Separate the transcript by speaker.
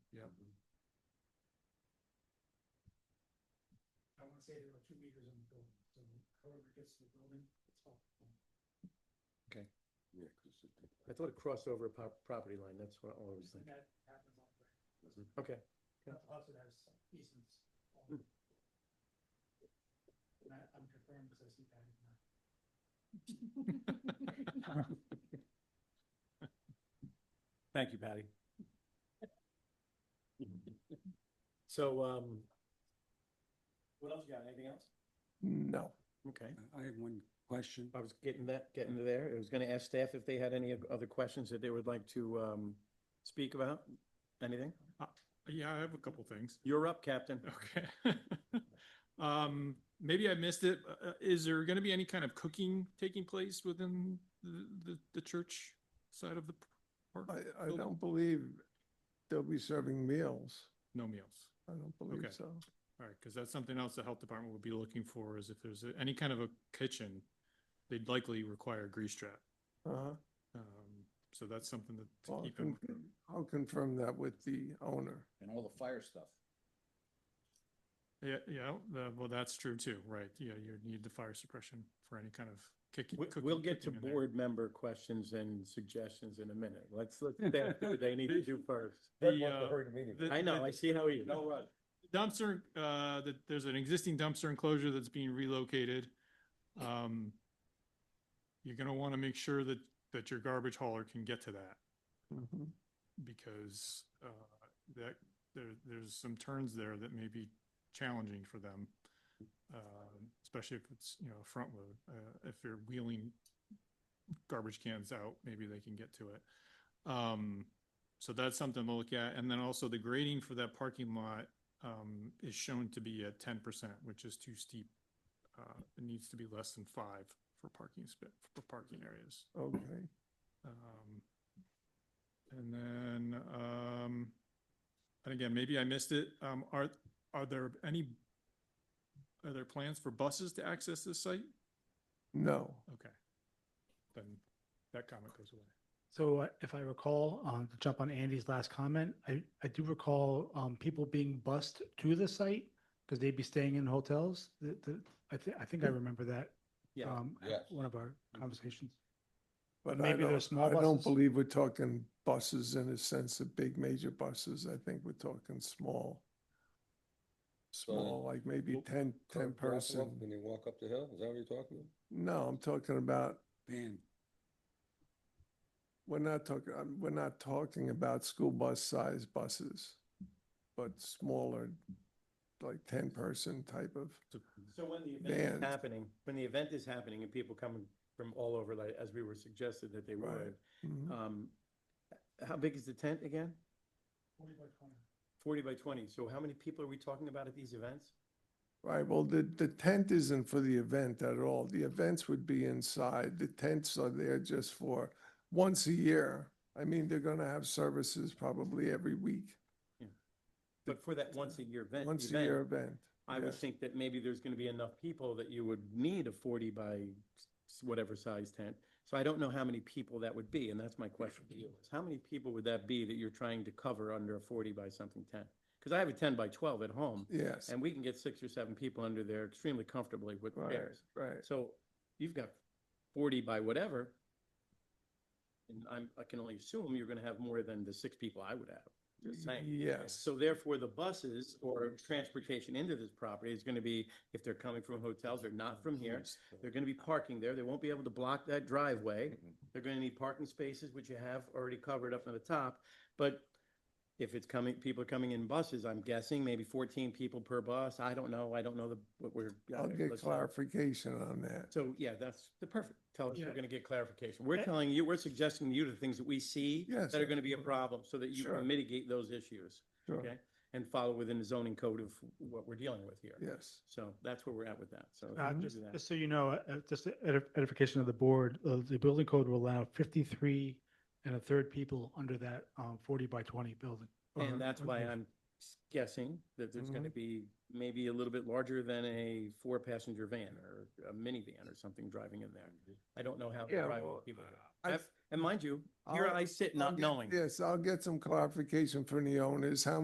Speaker 1: Yep.
Speaker 2: I wanna say there are two meters in the building, so however it gets to the building, it's all.
Speaker 3: Yeah, 'cause it-
Speaker 1: I thought it crossed over a po- property line, that's what I always
Speaker 2: And
Speaker 1: think. Mm-hmm.
Speaker 2: that happens all the way.
Speaker 1: Okay, Hmm.
Speaker 2: But lots of those easements. all the way. And I, I'm confirmed because I see that in my.
Speaker 4: Thank you, Patty.
Speaker 1: so, um,
Speaker 4: What else you got? Anything else?
Speaker 1: no, okay.
Speaker 3: I have one question.
Speaker 1: I was getting that, getting to there. I was gonna ask staff if they had any other questions that they would like to, um, speak about, anything?
Speaker 5: Yeah, I have a couple things.
Speaker 1: You're up, Captain.
Speaker 5: Okay. Um, maybe I missed it. Uh, uh, Is there gonna be any kind of cooking taking place within the, the, the church side of the
Speaker 6: I,
Speaker 5: park?
Speaker 6: I
Speaker 5: Bill?
Speaker 6: don't believe they'll be serving meals.
Speaker 5: No meals.
Speaker 6: I don't believe
Speaker 5: Okay.
Speaker 6: so.
Speaker 5: All right, because that's something else the health department would be looking for is if there's a- any kind of a kitchen, they'd likely require a grease trap.
Speaker 6: Uh-huh.
Speaker 5: Um, so that's something that to
Speaker 6: Well,
Speaker 5: keep in.
Speaker 6: I'll con- I'll confirm that with the owner.
Speaker 4: And all the fire stuff.
Speaker 5: Yeah, yeah, the- well, that's true too, right? Yeah, you need the fire suppression for any kind of kicking.
Speaker 1: We-
Speaker 5: cooking-
Speaker 1: We'll get to
Speaker 5: cooking in there.
Speaker 1: board member questions and suggestions in a minute. Let's, let's, staff do what they need to do first.
Speaker 5: The, uh, the-
Speaker 1: I know,
Speaker 5: the-
Speaker 1: I see how you.
Speaker 4: No rush.
Speaker 5: dumpster, uh, that there's an existing dumpster enclosure that's being relocated. Um, you're gonna wanna make sure that, that your garbage hauler can get to that
Speaker 6: Mhm.
Speaker 5: because, uh, that, there, there's some turns there that may be challenging for them. Uh, especially if it's, you know, a front load, uh, if you're wheeling garbage cans out, maybe they can get to it. Um, so that's something to look at. And then also the grading for that parking lot, um, is shown to be at ten percent, which is too steep. Uh, it needs to be less than five for parking sp- for parking areas.
Speaker 6: Okay,
Speaker 5: Um, and then, um, and again, maybe I missed it. Um, are, are there any, are there plans for buses to access this site?
Speaker 6: no.
Speaker 5: Okay. Then that comment goes away.
Speaker 2: So uh, if I recall, um, to jump on Andy's last comment, I, I do recall, um, people being bused to the site because they'd be staying in hotels. The, the, I think, I think I remember that.
Speaker 1: Yeah. Mm-hmm.
Speaker 2: um, at
Speaker 4: Yes.
Speaker 2: One of our conversations.
Speaker 6: But I
Speaker 2: Maybe they're
Speaker 6: don't,
Speaker 2: small
Speaker 6: I don't
Speaker 2: buses?
Speaker 6: believe we're talking buses in a sense of big major buses. I think we're talking small. Small, like maybe
Speaker 3: Well,
Speaker 6: 10, 10
Speaker 3: Drop 'em off When
Speaker 6: person.
Speaker 3: they walk up the hill, is that what you're talking about?
Speaker 6: No, I'm talking about
Speaker 3: Van.
Speaker 6: We're not talking, um, we're not talking about school bus size buses, but smaller, like ten person type of,
Speaker 1: So when the event is
Speaker 6: Vans.
Speaker 1: happening, when the event is happening and people coming from all over, like, as we were suggested that they
Speaker 6: Right.
Speaker 1: would,
Speaker 6: Mhm.
Speaker 1: um, how big is the tent again?
Speaker 2: Forty by twenty.
Speaker 1: Forty by twenty. So how many people are we talking about at these events?
Speaker 6: right? Well, the, the tent isn't for the event at all. The events would be inside. The tents are there just for once a year. I mean, they're gonna have services probably every week,
Speaker 1: But for that once a year event,
Speaker 6: once a year
Speaker 1: event,
Speaker 6: event.
Speaker 1: I would
Speaker 6: yeah.
Speaker 1: think that maybe there's gonna be enough people that you would need a forty by s- whatever size tent. So I don't know how many people that would be, and that's my question to you. is How many people would that be that you're trying to cover under a forty by something tent? Cause I have a ten by twelve at home.
Speaker 6: Yes,
Speaker 1: And we can get six or seven people under there extremely comfortably with
Speaker 6: right,
Speaker 1: chairs.
Speaker 6: right.
Speaker 1: So you've got forty by whatever. And I'm, I can only assume you're gonna have more than the six people I would have. Just saying.
Speaker 6: Yes,
Speaker 1: So therefore, the buses or transportation into this property is gonna be, if they're coming from hotels or not from here, they're gonna be parking there. They won't be able to block that driveway. They're gonna need parking spaces, which you have already covered up on the top. But if it's coming, people are coming in buses, I'm guessing maybe fourteen people per bus. I don't know. I don't know the, what we're.
Speaker 6: I'll get
Speaker 1: let's-
Speaker 6: clarification on that.
Speaker 1: So, yeah, that's the perfect. Tell us we're
Speaker 2: Yeah.
Speaker 1: gonna get clarification. We're
Speaker 2: Eh.
Speaker 1: telling you, we're suggesting you the things that we see
Speaker 6: Yes,
Speaker 1: that are gonna be a problem so that you
Speaker 6: Sure.
Speaker 1: can mitigate those issues
Speaker 6: Sure,
Speaker 1: okay. and follow within the zoning code of what we're dealing with here.
Speaker 6: yes.
Speaker 1: So that's where we're at with that. So. if
Speaker 2: Uh,
Speaker 1: you can
Speaker 2: just,
Speaker 1: do that.
Speaker 2: just so you know, uh, just a edif- edification of the board, uh, the building code will allow fifty-three and a third people under that, um, forty by twenty building.
Speaker 6: Uh-huh,
Speaker 2: Uh-huh.
Speaker 1: And that's why I'm guessing that there's
Speaker 6: Mm-hmm.
Speaker 1: gonna be maybe a little bit larger than a four-passenger van or a minivan or something driving in there. I don't know how. the
Speaker 6: Yeah,
Speaker 1: driving
Speaker 6: well,
Speaker 1: people do that.
Speaker 6: I-
Speaker 1: I've- And mind you, here
Speaker 6: I'll-
Speaker 1: I sit
Speaker 6: I'll
Speaker 1: not
Speaker 6: get-
Speaker 1: knowing.
Speaker 6: Yes, I'll get some clarification from the owners, how